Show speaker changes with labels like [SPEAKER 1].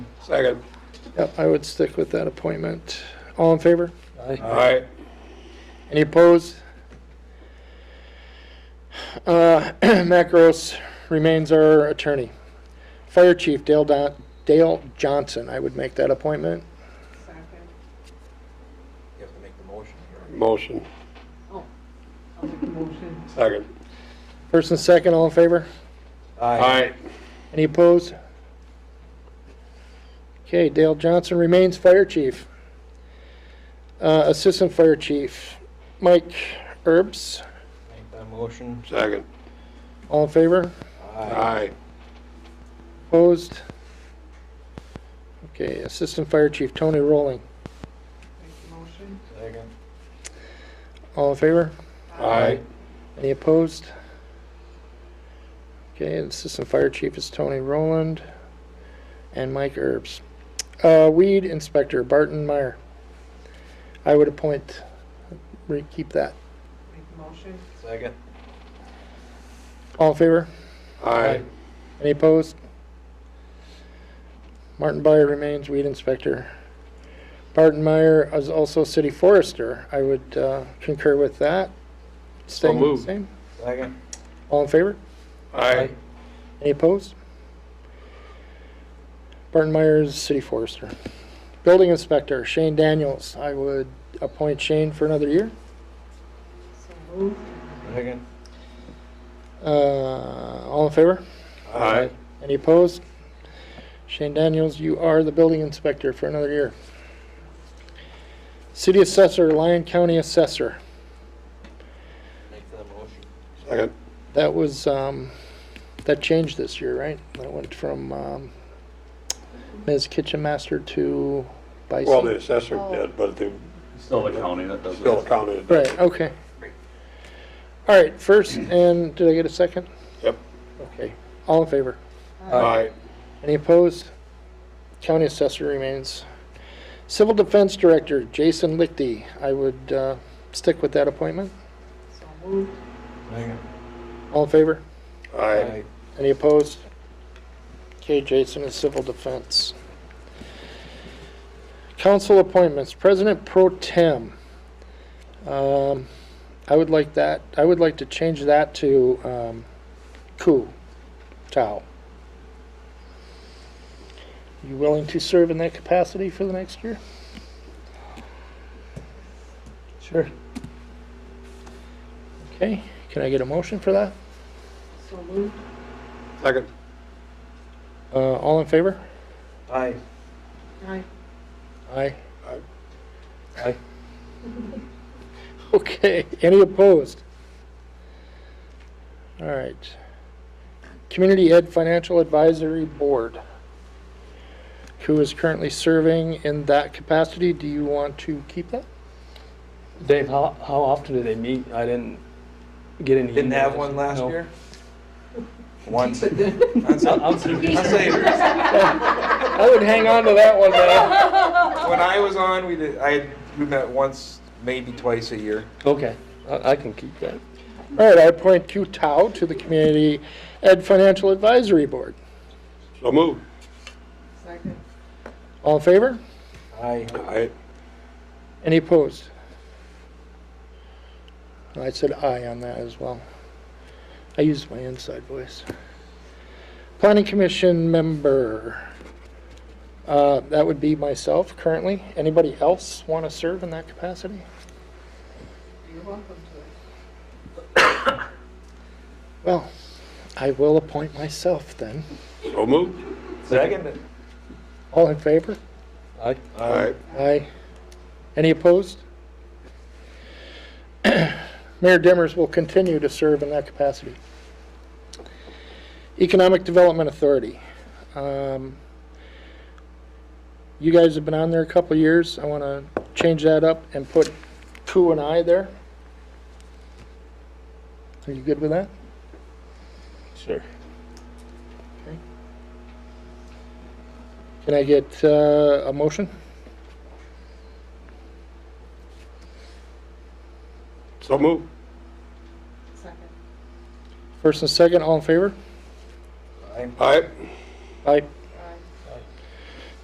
[SPEAKER 1] Second.
[SPEAKER 2] Yep, I would stick with that appointment. All in favor?
[SPEAKER 1] All right.
[SPEAKER 2] Any opposed? Uh, Matt Gross remains our attorney. Fire Chief Dale Don, Dale Johnson, I would make that appointment.
[SPEAKER 3] Second.
[SPEAKER 4] You have to make the motion here.
[SPEAKER 1] Motion.
[SPEAKER 3] Oh, I'll make a motion.
[SPEAKER 1] Second.
[SPEAKER 2] First and second, all in favor?
[SPEAKER 1] All right.
[SPEAKER 2] Any opposed? Okay, Dale Johnson remains fire chief. Uh, Assistant Fire Chief, Mike Herbs,
[SPEAKER 4] Make that motion.
[SPEAKER 1] Second.
[SPEAKER 2] all in favor?
[SPEAKER 1] All right.
[SPEAKER 2] Opposed? Okay, Assistant Fire Chief Tony Rowling,
[SPEAKER 3] Make a motion.
[SPEAKER 4] Second.
[SPEAKER 2] all in favor?
[SPEAKER 1] All right.
[SPEAKER 2] Any opposed? Okay, and Assistant Fire Chief is Tony Rowland and Mike Herbs. Uh, Weed Inspector Barton Meyer. I would appoint, re- keep that.
[SPEAKER 3] Make a motion.
[SPEAKER 4] Second.
[SPEAKER 2] All in favor?
[SPEAKER 1] All right.
[SPEAKER 2] Any opposed? Martin Byer remains Weed Inspector. Barton Meyer is also City Forester. I would uh, concur with that. Staying the
[SPEAKER 1] moved.
[SPEAKER 2] same.
[SPEAKER 4] Second.
[SPEAKER 2] All in favor?
[SPEAKER 1] All right.
[SPEAKER 2] Any opposed? Barton Myers, City Forester. Building Inspector, Shane Daniels. I would appoint Shane for another year.
[SPEAKER 3] So moved.
[SPEAKER 4] Second.
[SPEAKER 2] Uh, All in favor?
[SPEAKER 1] All right.
[SPEAKER 2] Any opposed? Shane Daniels, you are the Building Inspector for another year. City Assessor, Lyon County Assessor.
[SPEAKER 4] Make that motion.
[SPEAKER 1] Second.
[SPEAKER 2] That was, um, that changed this year, right? That went from um, Ms. Kitchen Master to Bison.
[SPEAKER 1] Well, the assessor did, but the,
[SPEAKER 5] Still the county that does
[SPEAKER 1] still
[SPEAKER 5] it.
[SPEAKER 1] counted.
[SPEAKER 2] Right, okay. All right, first, and did I get a second?
[SPEAKER 1] Yep.
[SPEAKER 2] Okay, all in favor?
[SPEAKER 1] All right.
[SPEAKER 2] Any opposed? County assessor remains. Civil Defense Director, Jason Lichty, I would uh, stick with that appointment.
[SPEAKER 3] So moved.
[SPEAKER 4] Second.
[SPEAKER 2] All in favor?
[SPEAKER 1] All right.
[SPEAKER 2] Any opposed? Okay, Jason is Civil Defense. Council appointments, President Pro Tem. Um, I would like that, I would like to change that to, um, Ku Tao. You willing to serve in that capacity for the next year? Sure. Okay, can I get a motion for that?
[SPEAKER 3] So moved.
[SPEAKER 1] Second.
[SPEAKER 2] Uh, all in favor?
[SPEAKER 4] Aye.
[SPEAKER 3] Aye.
[SPEAKER 2] Aye.
[SPEAKER 1] Aye.
[SPEAKER 4] Aye.
[SPEAKER 2] Okay, any opposed? All right. Community Ed Financial Advisory Board, who is currently serving in that capacity, do you want to keep that?
[SPEAKER 6] Dave, how, how often do they meet? I didn't get any.
[SPEAKER 4] Didn't have
[SPEAKER 6] emails.
[SPEAKER 4] one last
[SPEAKER 6] No.
[SPEAKER 4] year? Once.
[SPEAKER 6] I'll- I'll
[SPEAKER 4] I'll
[SPEAKER 6] see.
[SPEAKER 4] say,
[SPEAKER 2] I would hang on to that one, man.
[SPEAKER 4] when I was on, we did, I, we met once, maybe twice a year.
[SPEAKER 6] Okay, I, I can keep that.
[SPEAKER 2] All right, I appoint Q Tao to the Community Ed Financial Advisory Board.
[SPEAKER 1] So move.
[SPEAKER 3] Second.
[SPEAKER 2] All in favor?
[SPEAKER 4] Aye.
[SPEAKER 1] All right.
[SPEAKER 2] Any opposed? I said aye on that as well. I used my inside voice. Planning Commission member, uh, that would be myself currently. Anybody else want to serve in that capacity?
[SPEAKER 3] You're welcome to
[SPEAKER 2] Well, I will appoint myself then.
[SPEAKER 1] So move.
[SPEAKER 4] Second.
[SPEAKER 2] All in favor?
[SPEAKER 6] I,
[SPEAKER 1] All right.
[SPEAKER 2] Aye. Any opposed? Mayor Dimmers will continue to serve in that capacity. Economic Development Authority. Um, You guys have been on there a couple of years. I want to change that up and put Ku and I there. Are you good with that?
[SPEAKER 6] sure.
[SPEAKER 2] Can I get uh, a motion?
[SPEAKER 1] So move.
[SPEAKER 3] it. Second.
[SPEAKER 2] First and second, all in favor?
[SPEAKER 4] Aye.
[SPEAKER 1] All right.
[SPEAKER 2] Aye.